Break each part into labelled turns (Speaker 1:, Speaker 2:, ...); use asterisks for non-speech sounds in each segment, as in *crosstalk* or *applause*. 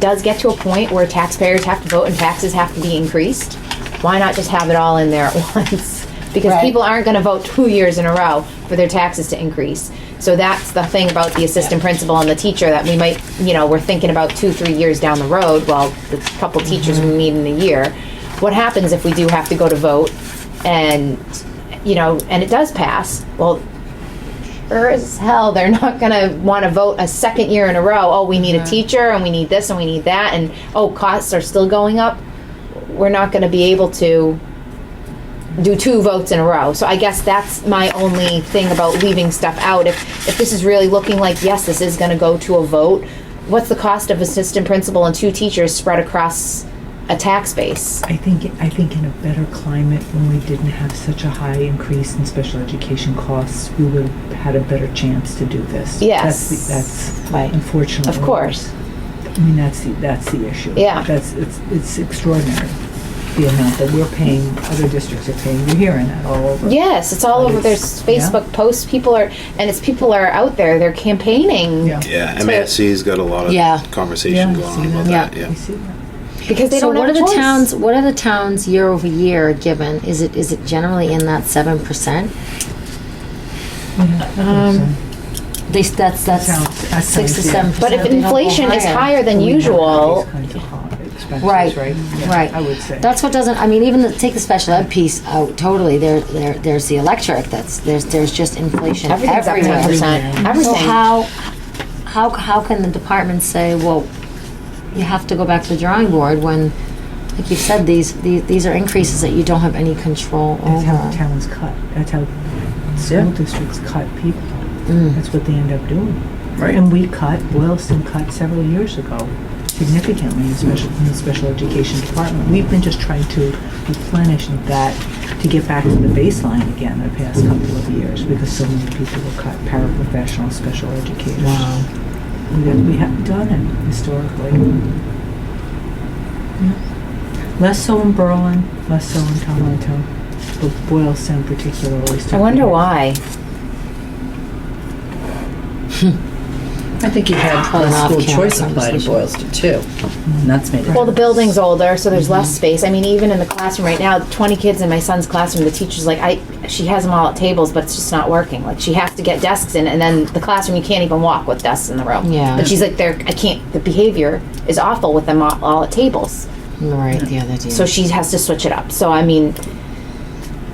Speaker 1: does get to a point where taxpayers have to vote and taxes have to be increased, why not just have it all in there at *laughs* once? Because
Speaker 2: Right.
Speaker 1: people aren't gonna vote two years in a row for their taxes to increase. So that's the thing about the assistant principal and the teacher that we might, you know, we're thinking about two, three years down the road, well, the couple teachers we need in a year. What happens if we do have to go to vote and, you know, and it does pass? Well, sure as hell they're not going to want to vote a second year in a row. Oh, we need a teacher and we need this and we need that, and oh, costs are still going up. We're not going to be able to do two votes in a row. So I guess that's my only thing about leaving stuff out. If if this is really looking like yes, this is going to go to a vote, what's the cost of assistant principal and two teachers spread across a tax base?
Speaker 3: I think, I think in a better climate, when we didn't have such a high increase in special education costs, we would have had a better chance to do this.
Speaker 1: Yes.
Speaker 3: That's, the- that's
Speaker 1: Right.
Speaker 3: unfortunately.
Speaker 1: Of course.
Speaker 3: I mean, that's the, that's the issue.
Speaker 1: Yeah.
Speaker 3: That's, it's, it's extraordinary, the amount that we're paying, other districts are paying, you're hearing that all over.
Speaker 1: Yes, it's all over. There's
Speaker 3: Yeah.
Speaker 1: Facebook posts. People are, and it's people are out there. They're campaigning.
Speaker 3: Yeah.
Speaker 4: Yeah, MASC's got a lot of
Speaker 2: Yeah.
Speaker 4: conversation
Speaker 3: Yeah,
Speaker 4: going on
Speaker 3: see
Speaker 4: about
Speaker 2: that.
Speaker 4: that. Yeah.
Speaker 3: You see that?
Speaker 1: because they
Speaker 2: so
Speaker 1: don't
Speaker 2: what
Speaker 1: have
Speaker 2: are
Speaker 1: a
Speaker 2: the
Speaker 1: choice.
Speaker 2: towns? What are the towns year over year given? Is it is it generally in that seven percent?
Speaker 3: Um.
Speaker 2: They s- that's that's
Speaker 3: Sounds- that
Speaker 2: six to
Speaker 3: sounds, yeah.
Speaker 2: seven percent.
Speaker 1: But if inflation is higher than usual,
Speaker 2: Right,
Speaker 3: Right, right? Yeah,
Speaker 2: right.
Speaker 3: I would say.
Speaker 2: That's what doesn't. I mean, even the, take the special ed piece out totally. There, there, there's the electric. That's there's there's just inflation
Speaker 1: everything's up
Speaker 2: everywhere.
Speaker 1: ten percent.
Speaker 2: So
Speaker 1: Everything.
Speaker 2: how, how, how can the department say, well, you have to go back to the drawing board when, like you said, these, these, these are increases that you don't have any control
Speaker 3: That's how
Speaker 2: over?
Speaker 3: towns cut. That's how school districts cut people.
Speaker 2: Mm.
Speaker 3: That's what they end up doing. Right. And we cut, Boylston cut several years ago significantly in special, in the special education department. We've been just trying to replenish that to get back to the baseline again the past couple of years because so many people were cut, paraprofessionals, special educators. Wow. We haven't done it historically. Yeah. Less so in Berlin, less so in Toronto, but Boylston particularly.
Speaker 1: I wonder why.
Speaker 5: I think you've had
Speaker 2: Pulling
Speaker 5: the
Speaker 2: off
Speaker 5: school
Speaker 2: camera
Speaker 5: choice apply to Boylston too. And that's made it.
Speaker 1: Well, the building's older, so there's less space. I mean, even in the classroom right now, 20 kids in my son's classroom, the teacher's like, I, she has them all at tables, but it's just not working. Like, she has to get desks in, and then the classroom, you can't even walk with desks in the room.
Speaker 2: Yeah.
Speaker 1: But she's like, they're, I can't, the behavior is awful with them all, all at tables.
Speaker 2: Right, the other
Speaker 1: So she has to switch it up. So, I mean,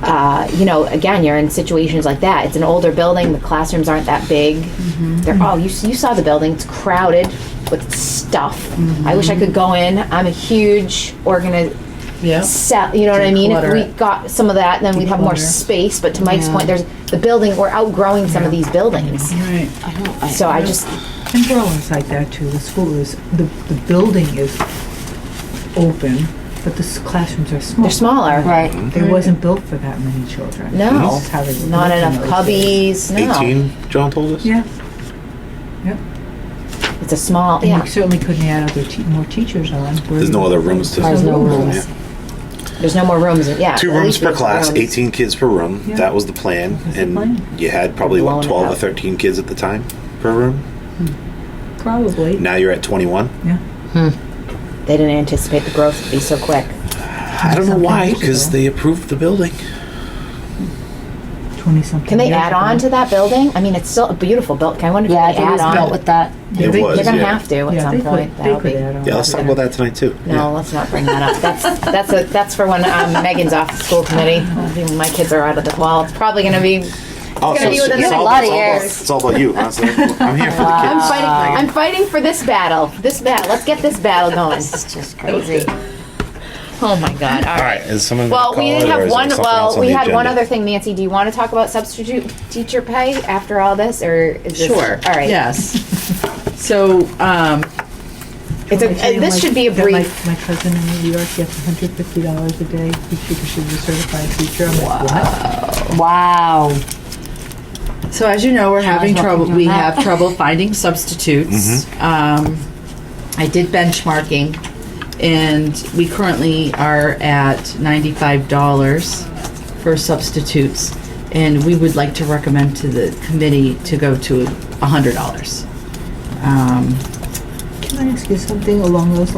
Speaker 1: uh, you know, again, you're in situations like that. It's an older building. The classrooms aren't that big.
Speaker 2: Mm-hmm.
Speaker 1: They're all you, you saw the building. It's crowded with stuff.
Speaker 2: Mm-hmm.
Speaker 1: I wish I could go in. I'm a huge organi-
Speaker 5: Yeah.
Speaker 1: Sell, you know what I mean? If
Speaker 5: Declutter
Speaker 1: we
Speaker 5: it.
Speaker 1: got some of that, then we'd have more
Speaker 3: Declutter.
Speaker 1: space. But to Mike's
Speaker 2: Yeah.
Speaker 1: point, there's the building. We're outgrowing some of these buildings.
Speaker 5: Right.
Speaker 2: I don't, I.
Speaker 1: So I just
Speaker 3: And Berlin's like that too. The school is, the, the building is open, but the s- classrooms are small.
Speaker 1: they're smaller.
Speaker 2: Right,
Speaker 3: They wasn't built for that many children.
Speaker 1: No.
Speaker 3: That's how they were
Speaker 1: Not
Speaker 3: built in
Speaker 1: enough
Speaker 3: those days.
Speaker 1: cubbies. No,
Speaker 4: 18, John told us?
Speaker 3: Yeah,
Speaker 1: it's a small.
Speaker 3: and
Speaker 1: Yeah,
Speaker 3: you certainly couldn't add other, te- more teachers on.
Speaker 4: There's no other rooms to.
Speaker 2: There's no
Speaker 4: Yeah.
Speaker 2: rooms.
Speaker 1: there's no more rooms. Yeah,
Speaker 4: Two
Speaker 1: at
Speaker 4: rooms
Speaker 1: least
Speaker 4: per
Speaker 1: there's
Speaker 4: class,
Speaker 1: rooms.
Speaker 4: 18 kids per room.
Speaker 3: Yeah.
Speaker 4: That was the plan.
Speaker 3: was the
Speaker 4: and
Speaker 3: plan.
Speaker 4: you had probably,
Speaker 1: Blowing
Speaker 4: what,
Speaker 1: it
Speaker 4: 12 or
Speaker 1: up.
Speaker 4: 13 kids at the time per room?
Speaker 3: Probably.
Speaker 4: Now you're at 21.
Speaker 3: Yeah.
Speaker 1: They didn't anticipate the growth would be so quick.
Speaker 4: I don't know why,
Speaker 3: years
Speaker 4: because
Speaker 3: ago.
Speaker 4: they approved the building.
Speaker 3: Twenty-something.
Speaker 1: Can they
Speaker 3: years
Speaker 1: add
Speaker 3: ago.
Speaker 1: on to that building? I mean, it's still a beautiful building. I wonder if
Speaker 2: yeah, I
Speaker 1: they
Speaker 2: think it
Speaker 1: add
Speaker 2: was built
Speaker 1: on.
Speaker 2: with that.
Speaker 4: It
Speaker 3: they-
Speaker 4: was.
Speaker 1: They're gonna
Speaker 4: yeah.
Speaker 1: have to at
Speaker 3: Yeah,
Speaker 1: some
Speaker 3: they
Speaker 1: point.
Speaker 3: could,
Speaker 1: That'll
Speaker 3: they could
Speaker 1: be-
Speaker 3: add on.
Speaker 4: Yeah, let's talk about that tonight, too.
Speaker 1: No, let's not bring that up. That's that's a, that's for when um, Megan's off the school
Speaker 3: *laughs*
Speaker 1: committee. I think my kids are out of the wall. It's probably going to be.
Speaker 4: Oh,
Speaker 1: It's gonna be within
Speaker 4: it's
Speaker 1: a
Speaker 4: all-
Speaker 2: lot of
Speaker 4: it's all about-
Speaker 2: years.
Speaker 4: It's all about you. huh? So I'm here for the
Speaker 1: I'm
Speaker 4: kids.
Speaker 1: fighting. I'm fighting for this battle. This battle. Let's get this battle going.
Speaker 2: It's just crazy.
Speaker 1: Oh my God! All
Speaker 4: All
Speaker 1: right.
Speaker 4: right, is someone gonna
Speaker 1: Well, we
Speaker 4: call
Speaker 1: didn't
Speaker 4: it, or
Speaker 1: have
Speaker 4: is there
Speaker 1: one.
Speaker 4: something else
Speaker 1: Well,
Speaker 4: on
Speaker 1: we
Speaker 4: the
Speaker 1: had one
Speaker 4: agenda?
Speaker 1: other thing. Nancy, do you want to talk about substitute teacher pay after all this, or is this
Speaker 5: Sure.
Speaker 1: All right.
Speaker 5: Yes. So, um,
Speaker 1: It's a,
Speaker 3: I tell you,
Speaker 1: uh, this
Speaker 3: my-
Speaker 1: should be a
Speaker 3: that
Speaker 1: brief.
Speaker 3: My, my cousin in New York gets hundred fifty dollars a day teacher because she's a certified teacher. I'm like, what?
Speaker 2: Wow.
Speaker 5: so as you know, we're
Speaker 2: well
Speaker 5: having
Speaker 2: keep
Speaker 5: trouble,
Speaker 2: doing
Speaker 5: we
Speaker 2: that.
Speaker 5: have trouble finding substitutes. Um, I did benchmarking and we currently are at ninety-five dollars for substitutes. And we would like to Um, recommend to the committee to go to hundred dollars.
Speaker 3: Can I ask you something along those lines?